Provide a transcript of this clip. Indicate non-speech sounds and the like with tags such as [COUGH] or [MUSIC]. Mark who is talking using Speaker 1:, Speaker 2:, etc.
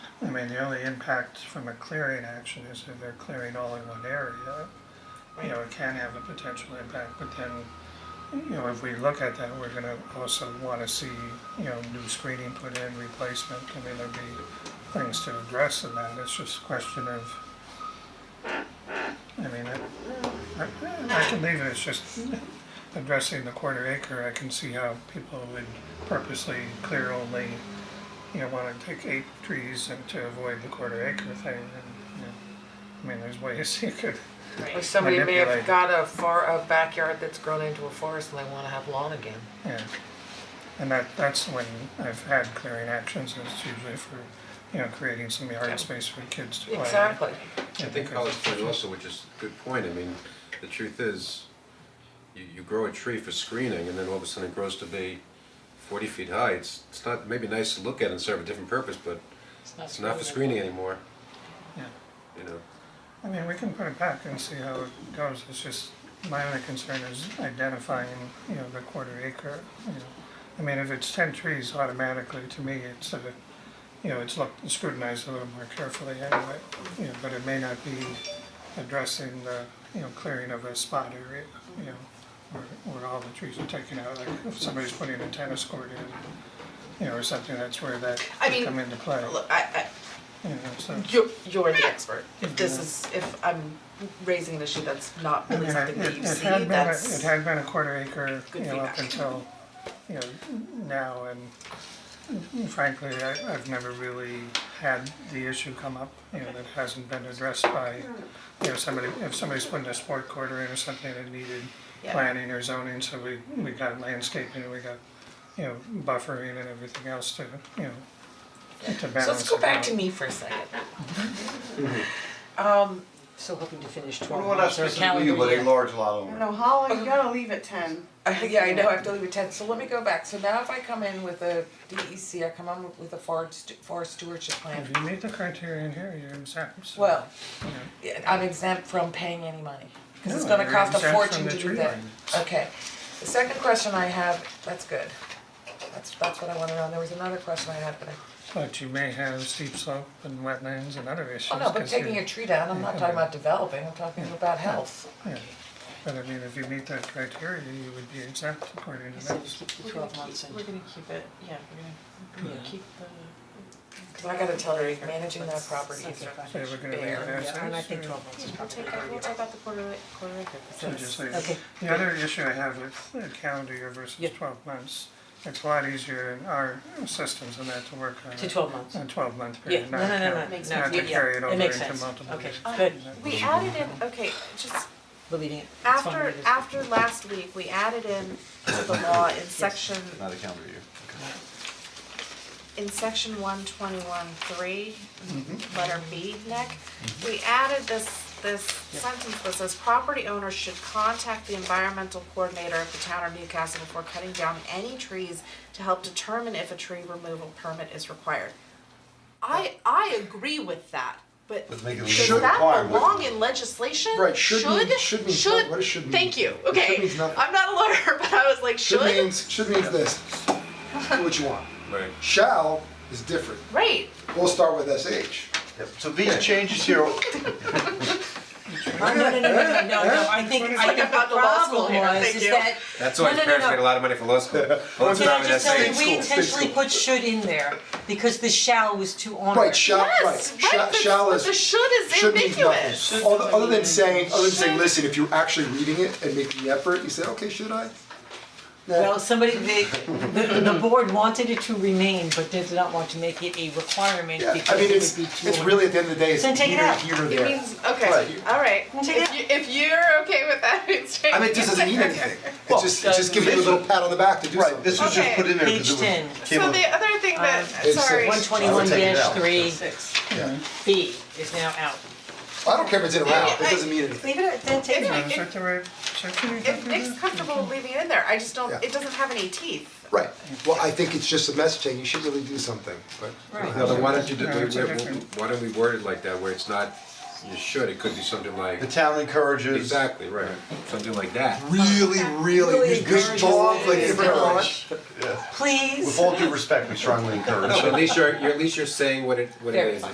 Speaker 1: I mean, the only impact from a clearing action is if they're clearing all in one area, you know, it can have a potential impact, but then, you know, if we look at that, we're gonna also wanna see, you know, new screening put in, replacement, I mean, there'd be things to address in that, it's just a question of, I mean, I, I- I can leave it, it's just addressing the quarter acre, I can see how people would purposely clear only, you know, wanna take eight trees and to avoid the quarter acre thing, and, you know, I mean, there's ways [LAUGHS] you could
Speaker 2: Like
Speaker 3: Right.
Speaker 2: somebody may have
Speaker 1: Manipulate.
Speaker 2: got a far, a backyard that's grown into a forest and they wanna have lawn again.
Speaker 1: Yeah, and that, that's when I've had clearing actions, and it's usually for, you know, creating some yard space for kids to play. in.
Speaker 2: Exactly.
Speaker 1: Yeah,
Speaker 4: I think
Speaker 1: because-
Speaker 4: Holly's point also, which is a good point, I mean, the truth is, you, you grow a tree for screening and then all of a sudden it grows to be forty feet high, it's, it's not, maybe nice to look at and serve a different purpose, but it's not for screening anymore.
Speaker 1: Yeah.
Speaker 4: You know,
Speaker 1: I mean, we can put it back and see how it goes, it's just, my only concern is identifying, you know, the quarter acre, you know. I mean, if it's ten trees automatically, to me, it's a, you know, it's looked scrutinized a little more carefully anyway, you know, but it may not be addressing the, you know, clearing of a spot area, you know, where, where all the trees are taken out, like if somebody's putting a tennis court in, you know, or something, that's where that
Speaker 2: I
Speaker 1: could
Speaker 2: mean,
Speaker 1: come into play,
Speaker 2: Look, I,
Speaker 1: you know, so.
Speaker 2: I, you're, you're the expert. If this is, if I'm raising an issue that's not
Speaker 1: I mean,
Speaker 2: really
Speaker 1: it,
Speaker 2: something that
Speaker 1: it
Speaker 2: you
Speaker 1: it
Speaker 2: see,
Speaker 1: had been, a- it
Speaker 2: that's,
Speaker 1: had been a quarter acre, you
Speaker 2: Good
Speaker 1: know, up
Speaker 2: feedback.
Speaker 1: until, you know, now, and frankly, I, I've never really had the issue come up, you know, that hasn't been addressed by, you know, somebody, if somebody's putting a sport quarter in or something that needed
Speaker 2: Yeah.
Speaker 1: planning or zoning, so we, we got landscaping, we got, you know, buffering and everything else to, you know, to balance it out.
Speaker 2: so let's go back to me for a second.
Speaker 3: Still hoping to finish
Speaker 5: Well,
Speaker 3: twelve
Speaker 5: we're not
Speaker 3: months or
Speaker 5: specifically you,
Speaker 3: calendar
Speaker 5: but
Speaker 3: year.
Speaker 5: a large lot owner.
Speaker 6: No, Holly, you gotta leave at ten.
Speaker 2: Uh, Yeah, I know, I have to leave at ten, so let me go back, so now if I come in with a DEC, I come in with a forest, forest stewardship plan,
Speaker 1: If you meet the criteria in here, you're exempt, so,
Speaker 2: well,
Speaker 1: you know.
Speaker 2: yeah, I'm exempt from paying any money, cause it's
Speaker 1: No,
Speaker 2: gonna
Speaker 1: you're
Speaker 2: cost a
Speaker 1: exempt from
Speaker 2: fortune
Speaker 1: the
Speaker 2: to do
Speaker 1: tree
Speaker 2: that.
Speaker 1: line.
Speaker 2: Okay, the second question I have, that's good, that's, that's what I wanna know, there was another question I had, but I,
Speaker 1: But you may have steep slope and wetlands and other issues.
Speaker 2: oh no, but
Speaker 1: 'cause you're-
Speaker 2: taking a tree down, I'm not talking about developing, I'm talking about health.
Speaker 1: Yeah, but I mean, if you meet that criteria, you would be exempt according to
Speaker 3: So we
Speaker 1: this.
Speaker 3: keep the twelve months in.
Speaker 7: gonna keep it, yeah, we're
Speaker 3: gonna
Speaker 7: keep the.
Speaker 2: Cause I gotta tell her, managing that property is,
Speaker 3: Okay, fine.
Speaker 1: So we're gonna leave
Speaker 2: Fair,
Speaker 1: it as is.
Speaker 3: Yeah, and I think
Speaker 1: or-
Speaker 3: twelve months is
Speaker 7: We'll
Speaker 3: probably.
Speaker 7: take, out- we'll take out the quarter, li- quarter acre, 'cause
Speaker 1: So
Speaker 7: that's-
Speaker 1: just leave it.
Speaker 3: Okay.
Speaker 1: The other issue I have with the calendar year versus
Speaker 3: Yeah.
Speaker 1: twelve months, it's a lot easier in our systems than that to work on.
Speaker 3: To
Speaker 1: a-
Speaker 3: 12 months.
Speaker 1: A twelve month
Speaker 3: Yeah,
Speaker 1: period,
Speaker 3: no,
Speaker 1: not
Speaker 3: no, no, no,
Speaker 1: to,
Speaker 3: no,
Speaker 7: Makes
Speaker 3: yeah,
Speaker 1: not to
Speaker 3: yeah,
Speaker 1: carry it over
Speaker 3: it makes
Speaker 1: into
Speaker 3: sense,
Speaker 1: multiple
Speaker 3: okay, Uh,
Speaker 1: years.
Speaker 7: Um,
Speaker 3: good,
Speaker 7: We added in, okay, just
Speaker 3: we're leaving it, it's fine,
Speaker 7: after,
Speaker 3: we're just-
Speaker 7: after last week, we added in to the law in section,
Speaker 5: Not a calendar year.
Speaker 7: in section one twenty-one three,
Speaker 3: Mm-hmm.
Speaker 7: letter B, Nick. We added this, this sentence that says, property owners should contact the environmental coordinator of the town of Newcastle before cutting down any trees to help determine if a tree removal permit is required. I, I agree with that, but
Speaker 5: Let's make it a
Speaker 7: does
Speaker 5: legal
Speaker 7: that
Speaker 5: requirement.
Speaker 7: belong in legislation?
Speaker 8: Right, should mean-
Speaker 7: Should,
Speaker 8: should means-
Speaker 7: should,
Speaker 8: what does should mean?
Speaker 7: thank you,
Speaker 8: Should
Speaker 7: okay,
Speaker 8: means nothing.
Speaker 7: I'm not a lawyer, [LAUGHS] but I was like, should?
Speaker 8: Should means should means this. Do what you want.
Speaker 4: right.
Speaker 8: Shall is different.
Speaker 7: Right,
Speaker 8: We'll start with sh.
Speaker 5: Yep, so these changes here,
Speaker 3: No, no, no, no, no, no, no, I think, I think
Speaker 7: about
Speaker 3: the
Speaker 7: the law school
Speaker 3: problem
Speaker 7: here,
Speaker 3: was
Speaker 7: thank
Speaker 3: is
Speaker 7: you.
Speaker 3: that,
Speaker 4: That's
Speaker 3: no,
Speaker 4: why
Speaker 3: no,
Speaker 4: his
Speaker 3: no,
Speaker 4: parents
Speaker 3: no.
Speaker 4: made a lot of money for law school. Well, it's
Speaker 3: Can
Speaker 4: not
Speaker 3: I
Speaker 4: in
Speaker 3: just
Speaker 4: that
Speaker 3: tell you,
Speaker 4: same
Speaker 3: we
Speaker 4: school.
Speaker 3: intentionally put should in there because the shall was too onerous.
Speaker 8: Right, shall
Speaker 7: yes,
Speaker 8: right. Shall,
Speaker 7: right,
Speaker 8: shall
Speaker 7: but
Speaker 8: is
Speaker 7: the should is
Speaker 8: should means nothing.
Speaker 7: ambiguous.
Speaker 8: Other, other than saying other than saying, listen, if you're actually reading it and making the effort, you say, okay, should I? Nah.
Speaker 3: Well, somebody, they, the, the board wanted it to remain, but did not want to make it a requirement
Speaker 8: yeah. I
Speaker 3: because
Speaker 8: mean
Speaker 3: it
Speaker 8: it's
Speaker 3: would be too.
Speaker 8: it's really at the end of the day, it's
Speaker 3: Then
Speaker 8: either
Speaker 3: take it out.
Speaker 8: here or there.
Speaker 7: It means, okay,
Speaker 8: Right.
Speaker 7: alright,
Speaker 3: Take it
Speaker 7: if you, if you're okay with that, [LAUGHS] it's
Speaker 8: I mean it just doesn't
Speaker 3: [LAUGHS]
Speaker 8: mean anything. It's just it's just giving you a little pat on the back to do
Speaker 5: right,
Speaker 8: something.
Speaker 5: this was just
Speaker 7: Okay.
Speaker 5: put in there
Speaker 3: Page
Speaker 5: because it was.
Speaker 3: 10.
Speaker 5: came
Speaker 7: [LAUGHS] So
Speaker 5: up-
Speaker 7: the other thing that,
Speaker 8: it's-
Speaker 7: sorry,
Speaker 3: Um, One twenty-one
Speaker 5: take it
Speaker 3: dash
Speaker 5: out.
Speaker 3: three
Speaker 2: six.
Speaker 8: yeah.
Speaker 3: B is now out.
Speaker 8: I don't care if it's in or out, it doesn't mean anything.
Speaker 3: Leave it, at- then take it
Speaker 7: If-
Speaker 3: out.
Speaker 1: Is that the right section you
Speaker 7: if
Speaker 1: have
Speaker 7: Nick's comfortable leaving it in there, I just don't,
Speaker 8: Yeah.
Speaker 7: it doesn't have any teeth.
Speaker 8: Right. Well I think it's just a message saying you should really do something, but
Speaker 4: No, then why don't you, do-
Speaker 1: No, it's a
Speaker 4: why- why-
Speaker 1: different-
Speaker 4: why don't we word it like that, where it's not, you should, it could be something like,
Speaker 5: The town encourages.
Speaker 4: exactly, right, something like that.
Speaker 8: really,
Speaker 3: Really
Speaker 8: really, good
Speaker 3: encourages
Speaker 8: dog, like
Speaker 3: it.
Speaker 8: give her a hug.
Speaker 3: Please.
Speaker 5: With all due respect, we strongly encourage. [LAUGHS]
Speaker 4: No, but at least you're, you're, at least you're saying what it, what it is,
Speaker 3: Verify.